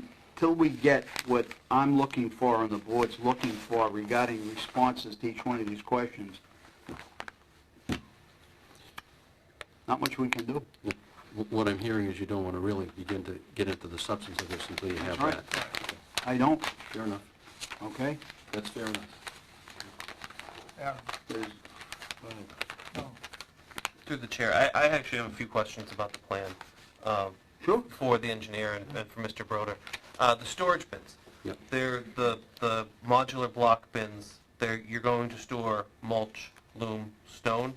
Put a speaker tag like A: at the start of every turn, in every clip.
A: until we get what I'm looking for and the board's looking for regarding responses to each one of these questions, not much we can do.
B: Wh- What I'm hearing is you don't want to really begin to get into the substance of this until you have
A: All right.
B: that.
A: I don't,
B: Fair enough.
A: okay?
B: That's fair enough.
C: Yeah,
A: There's-
C: no.
D: Through the chair, I, I actually have a few questions about the plan um,
A: Sure.
D: for the engineer and, and for Mr. Broder. Uh, the storage bins,
B: Yep.
D: they're the, the modular block bins, they're, you're going to store mulch, loam, stone.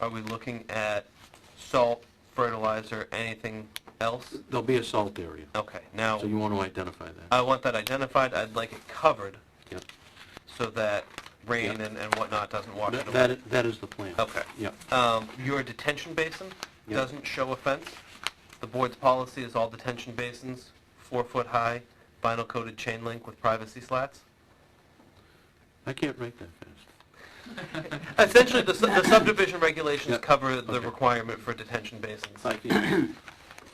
D: Are we looking at salt, fertilizer, anything else?
B: There'll be a salt area,
D: Okay, now,
B: so you want to identify that.
D: I want that identified, I'd like it covered
B: Yep.
D: so that rain
B: Yeah.
D: and, and whatnot doesn't wash it
B: That-
D: away.
B: That, i- that is the plan.
D: Okay.
B: Yep.
D: Um, your detention basin
B: Yeah.
D: doesn't show a fence. The board's policy is all detention basins, four foot high, vinyl coated chain link with privacy slats.
B: I can't write that fast.
D: Essentially, the, su- the subdivision regulations
B: Yeah.
D: cover the
B: Okay.
D: requirement for detention basins.
B: I can't.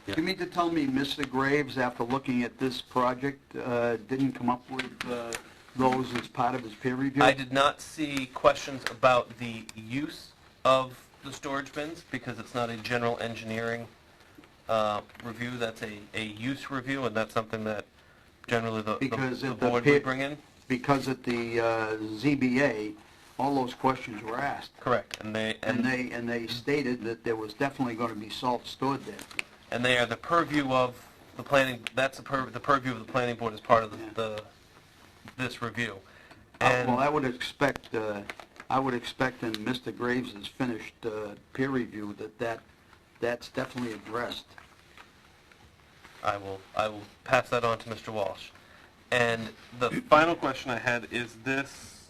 B: Yeah.
A: You mean to tell me Mr. Graves, after looking at this project, uh, didn't come up with uh, those as part of his peer review?
D: I did not see questions about the use of the storage bins because it's not a general engineering uh, review. That's a, a use review, and that's something that generally the, the,
A: Because
D: the
A: if the
D: board
A: pe-
D: would bring in.
A: Because at the uh, ZBA, all those questions were asked.
D: Correct, and they
A: And they, and they stated that there was definitely going to be salt stored there.
D: and they are the purview of the planning, that's the pur, the purview of the planning board as part of
A: Yeah.
D: the- the, this review.
A: Uh, Well, I
D: And,
A: would expect, uh, I would expect in Mr. Graves' finished uh, peer review that that, that's definitely addressed.
D: I will, I will pass that on to Mr. Walsh. And the final question I had, is this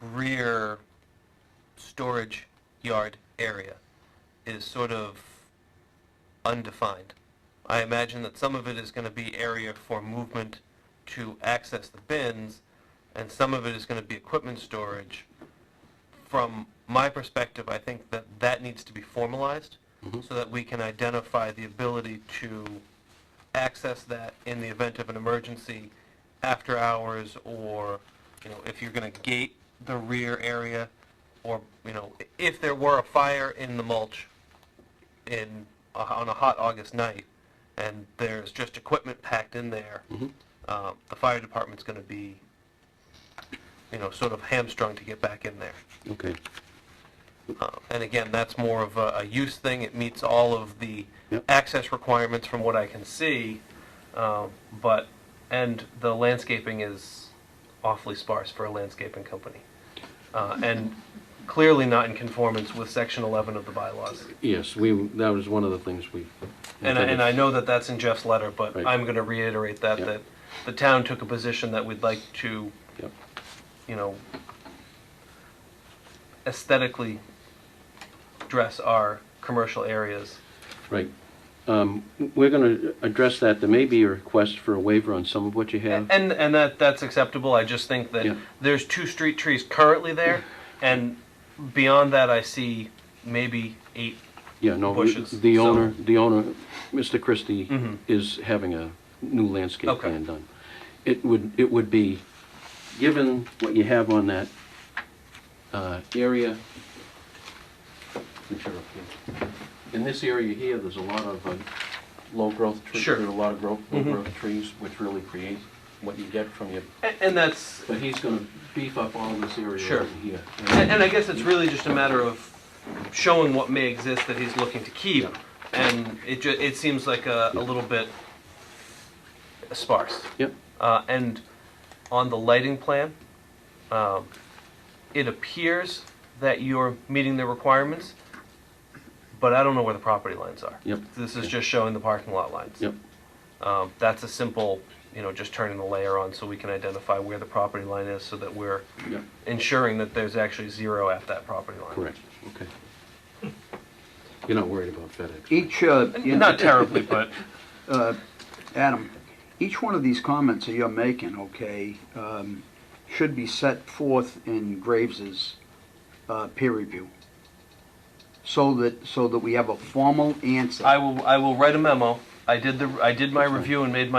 D: rear storage yard area is sort of undefined? I imagine that some of it is gonna be area for movement to access the bins, and some of it is gonna be equipment storage. From my perspective, I think that that needs to be formalized, so that we can identify the ability to access that in the event of an emergency after hours or, you know, if you're going to gate the rear area or, you know, i- if there were a fire in the mulch in, uh, on a hot August night and there's just equipment packed in there, uh, the fire department's going to be, you know, sort of hamstrung to get back in there.
B: Okay.
D: Uh, And again, that's more of a, a use thing. It meets all of the
B: Yep.
D: access requirements from what I can see. Um, But, and the landscaping is awfully sparse for a landscaping company. Uh, And clearly not in conformance with section 11 of the bylaws.
B: Yes, we, that was one of the things we.
D: And I, and I know that that's in Jeff's letter, but
B: Right.
D: I'm going to reiterate that,
B: Yep.
D: that the town took a position that we'd like to,
B: Yep.
D: you know, aesthetically dress our commercial areas
B: Right. Um, We're going to address that. There may be a request for a waiver on some of what you have.
D: And and that that's acceptable. I just think that
B: Yeah.
D: there's two street trees currently there, and beyond that, I see maybe eight.
B: Yeah, no, we-
D: bushes,
B: the
D: so- Mm-hmm.
B: owner, the owner, Mr. Christie, is having a new landscape
D: Okay.
B: plan done. It would, it would be, given what you have on that uh, area, which are up here. in this area here, there's a lot of uh, low-growth trees.
D: Sure. Mm-hmm.
B: There are a lot of growth, low-growth trees, which really create what you get from your,
D: And, and that's
B: but he's going to beef up all this area
D: Sure.
B: over here.
D: and, and I guess it's really just a matter of showing what may exist that he's looking to keep,
B: Yeah.
D: and it ju- it seems like a, a little bit sparse.
B: Yep,
D: Uh, and on the lighting plan, um, it appears that you're meeting the requirements, but I don't know where the property lines are.
B: Yep.
D: This is just showing the parking lot lines.
B: yep.
D: Um, that's a simple, you know, just turning the layer on so we can identify where the property line is so that we're
B: Yep.
D: ensuring that there's actually zero at that property line.
B: Correct, okay. You're not worried about FedEx?
A: Each, uh, you know,
D: Not terribly, but
A: Adam, each one of these comments that you're making, okay, um, should be set forth in Graves's uh, peer review, so that, so that we have a formal answer.
D: I will, I will write a memo. I did the, I did my review and made my